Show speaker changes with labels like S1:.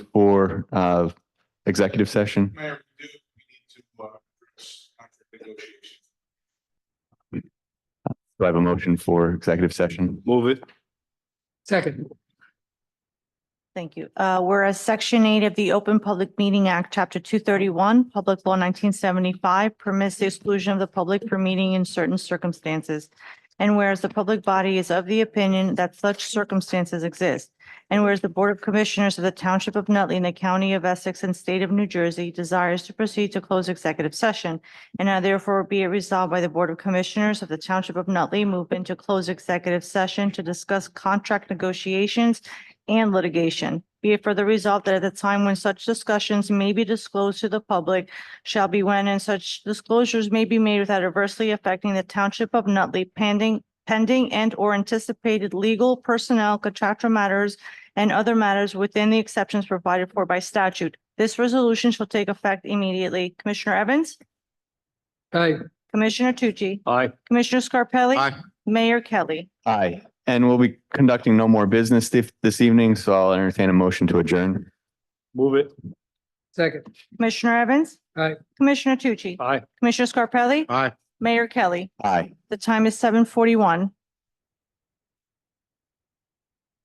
S1: or uh, executive session?
S2: Mayor, we do, we need to, uh, address contract negotiations.
S1: Do I have a motion for executive session?
S3: Move it.
S4: Second.
S5: Thank you. Uh, Whereas Section 8 of the Open Public Meeting Act, Chapter 231, Public Law 1975 permits the exclusion of the public from meeting in certain circumstances. And whereas the public body is of the opinion that such circumstances exist. And whereas the Board of Commissioners of the Township of Nutley and the County of Essex and State of New Jersey desires to proceed to close executive session. And now therefore be it resolved by the Board of Commissioners of the Township of Nutley move into close executive session to discuss contract negotiations and litigation. Be it further resolved that at the time when such discussions may be disclosed to the public shall be when and such disclosures may be made without adversely affecting the township of Nutley pending, pending and or anticipated legal personnel contractual matters and other matters within the exceptions provided for by statute. This resolution shall take effect immediately. Commissioner Evans?
S4: Aye.
S5: Commissioner Tucci?
S3: Aye.
S5: Commissioner Scarpelli?
S3: Aye.
S5: Mayor Kelly?
S1: Aye. And we'll be conducting no more business this, this evening, so I'll entertain a motion to adjourn.
S3: Move it.
S4: Second.
S5: Commissioner Evans?
S4: Aye.
S5: Commissioner Tucci?
S3: Aye.
S5: Commissioner Scarpelli?
S3: Aye.
S5: Mayor Kelly?
S1: Aye.
S5: The time is seven forty-one.